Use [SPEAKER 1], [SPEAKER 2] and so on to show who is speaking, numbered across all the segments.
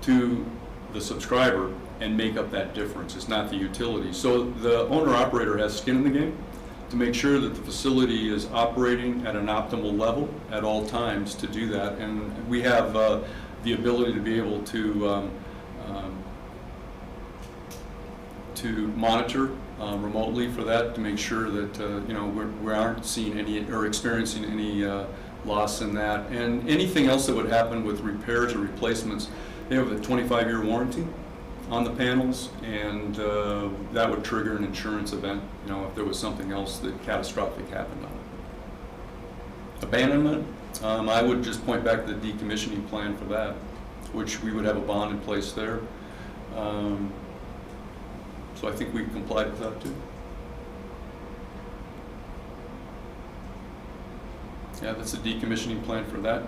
[SPEAKER 1] to the subscriber and make up that difference. It's not the utility. So the owner-operator has skin in the game to make sure that the facility is operating at an optimal level at all times to do that. And we have uh, the ability to be able to um, um, to monitor uh, remotely for that, to make sure that, uh, you know, we're- we aren't seeing any, or experiencing any uh, loss in that. And anything else that would happen with repairs or replacements, they have a 25-year warranty on the panels, and uh, that would trigger an insurance event, you know, if there was something else that catastrophic happened on it. Abandonment, um, I would just point back to the decommissioning plan for that, which we would have a bond in place there. Um, so I think we complied with that too. Yeah, that's a decommissioning plan for that.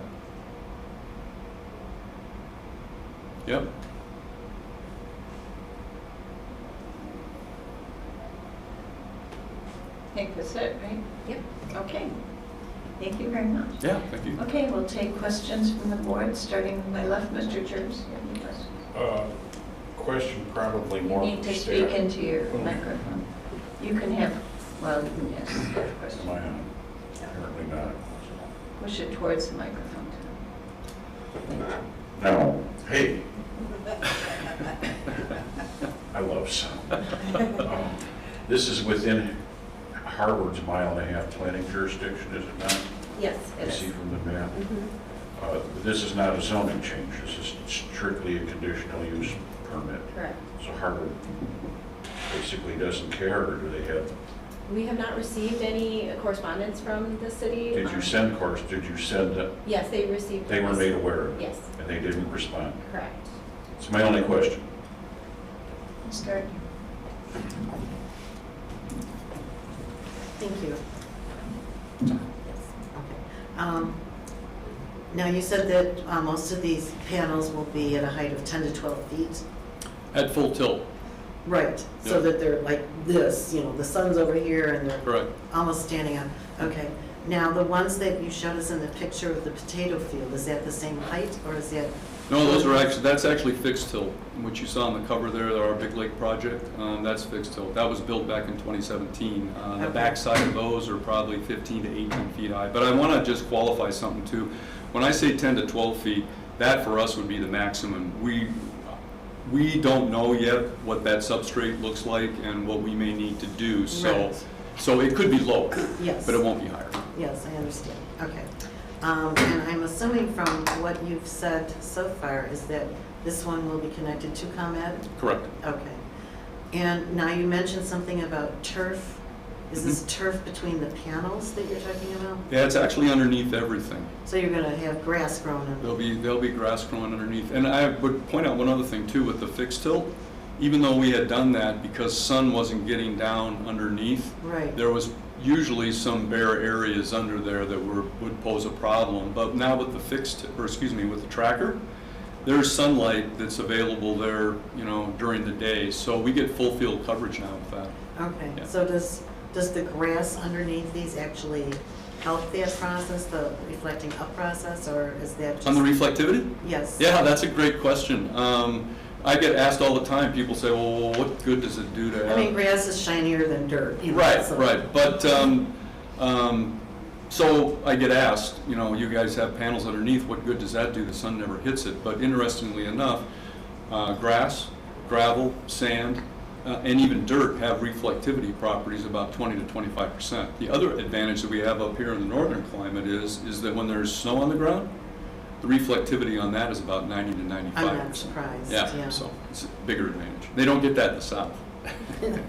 [SPEAKER 1] Yep.
[SPEAKER 2] I think that's it, right?
[SPEAKER 3] Yep.
[SPEAKER 2] Okay. Thank you very much.
[SPEAKER 1] Yeah, thank you.
[SPEAKER 2] Okay, we'll take questions from the board, starting with my left, Mr. Jervis. you have any questions?
[SPEAKER 4] Uh, Question probably
[SPEAKER 2] You
[SPEAKER 4] more
[SPEAKER 2] need
[SPEAKER 4] for
[SPEAKER 2] to speak
[SPEAKER 4] staff.
[SPEAKER 2] into your microphone. You can have, well, you can ask a
[SPEAKER 4] Am
[SPEAKER 2] question.
[SPEAKER 4] I on? Apparently not.
[SPEAKER 2] Push it towards the microphone.
[SPEAKER 4] No. Hey. I love sound. Um, This is within Harvard's mile and a half planning jurisdiction, is it not?
[SPEAKER 3] Yes, it
[SPEAKER 4] I
[SPEAKER 3] is.
[SPEAKER 4] see from the map.
[SPEAKER 3] Mhm.
[SPEAKER 4] Uh, This is not a zoning change. This is strictly a conditional use permit.
[SPEAKER 3] Correct.
[SPEAKER 4] So Harvard basically doesn't care, or do they have
[SPEAKER 3] We have not received any correspondence from the city.
[SPEAKER 4] Did you
[SPEAKER 3] Um,
[SPEAKER 4] send course, did you send, that
[SPEAKER 3] Yes, they received.
[SPEAKER 4] they were
[SPEAKER 3] us.
[SPEAKER 4] made aware of it?
[SPEAKER 3] Yes,
[SPEAKER 4] And they didn't respond?
[SPEAKER 3] correct.
[SPEAKER 4] It's my only question.
[SPEAKER 2] Ms. Gardner.
[SPEAKER 5] Thank you. Yes, okay. Um, Now, you said that uh, most of these panels will be at a height of 10 to 12 feet?
[SPEAKER 1] At full tilt,
[SPEAKER 5] Right,
[SPEAKER 1] Yeah.
[SPEAKER 5] so that they're like this, you know, the sun's over here and they're
[SPEAKER 1] correct.
[SPEAKER 5] almost standing up. Okay. Now, the ones that you showed us in the picture of the potato field, is that the same height or is that,
[SPEAKER 1] No, those are actually, that's actually fixed tilt, which you saw on the cover there, our Big Lake project, um, that's fixed tilt. That was built back in 2017. Uh, The
[SPEAKER 5] Okay.
[SPEAKER 1] backside of those are probably 15 to 18 feet high. But I want to just qualify something too. When I say 10 to 12 feet, that for us would be the maximum. We, we don't know yet what that substrate looks like and what we may need to do, so,
[SPEAKER 5] Right.
[SPEAKER 1] so it could be lower,
[SPEAKER 5] yes?
[SPEAKER 1] but it won't be higher.
[SPEAKER 5] Yes, I understand, okay. Um, And I'm assuming from what you've said so far is that this one will be connected to ComEd?
[SPEAKER 1] Correct.
[SPEAKER 5] Okay. And now you mentioned something about turf. Is this
[SPEAKER 1] Mm-hmm.
[SPEAKER 5] turf between the panels that you're talking about?
[SPEAKER 1] Yeah, it's actually underneath everything.
[SPEAKER 5] So you're gonna have grass grown in?
[SPEAKER 1] There'll be, there'll be grass growing underneath. And I would point out one other thing too, with the fixed tilt, even though we had done that because sun wasn't getting down underneath,
[SPEAKER 5] Right,
[SPEAKER 1] there was usually some bare areas under there that were, would pose a problem. But now with the fixed, or excuse me, with the tracker, there's sunlight that's available there, you know, during the day. So we get full field coverage now with that.
[SPEAKER 5] okay.
[SPEAKER 1] Yeah.
[SPEAKER 5] So does, does the grass underneath these actually help that process, the reflecting up process, or is that just?
[SPEAKER 1] On the reflectivity?
[SPEAKER 5] Yes.
[SPEAKER 1] Yeah, that's a great question. Um, I get asked all the time, people say, well, what good does it do to
[SPEAKER 5] I
[SPEAKER 1] have?
[SPEAKER 5] mean, grass is shinier than dirt, you know,
[SPEAKER 1] Right,
[SPEAKER 5] so-
[SPEAKER 1] right, but, um, um, so I get asked, you know, you guys have panels underneath, what good does that do? The sun never hits it, but interestingly enough, uh, grass, gravel, sand, uh, and even dirt have reflectivity properties about twenty to twenty-five percent. The other advantage that we have up here in the northern climate is, is that when there's snow on the ground, the reflectivity on that is about ninety to ninety-five percent.
[SPEAKER 5] I'm not surprised,
[SPEAKER 1] Yeah, so it's a bigger advantage. They don't get that in the south.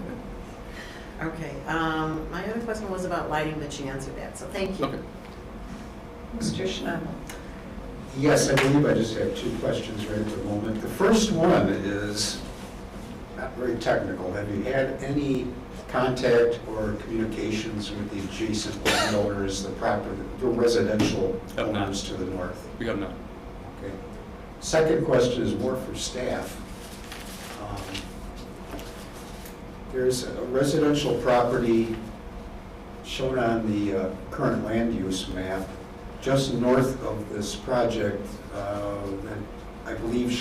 [SPEAKER 5] Okay, um, my other question was about lighting, but you answered that, so thank you.
[SPEAKER 1] Okay.
[SPEAKER 2] Mr. Schnabel.
[SPEAKER 6] Yes, I believe I just have two questions right at the moment. The first one is not very technical. Have you had any contact or communications with the adjacent landowners, the proper, the residential
[SPEAKER 1] Have not.
[SPEAKER 6] owners to the north?
[SPEAKER 1] We have none.
[SPEAKER 6] Okay. Second question is more for staff. Um, There's a residential property shown on the uh, current land use map, just north of this project, uh, that I believe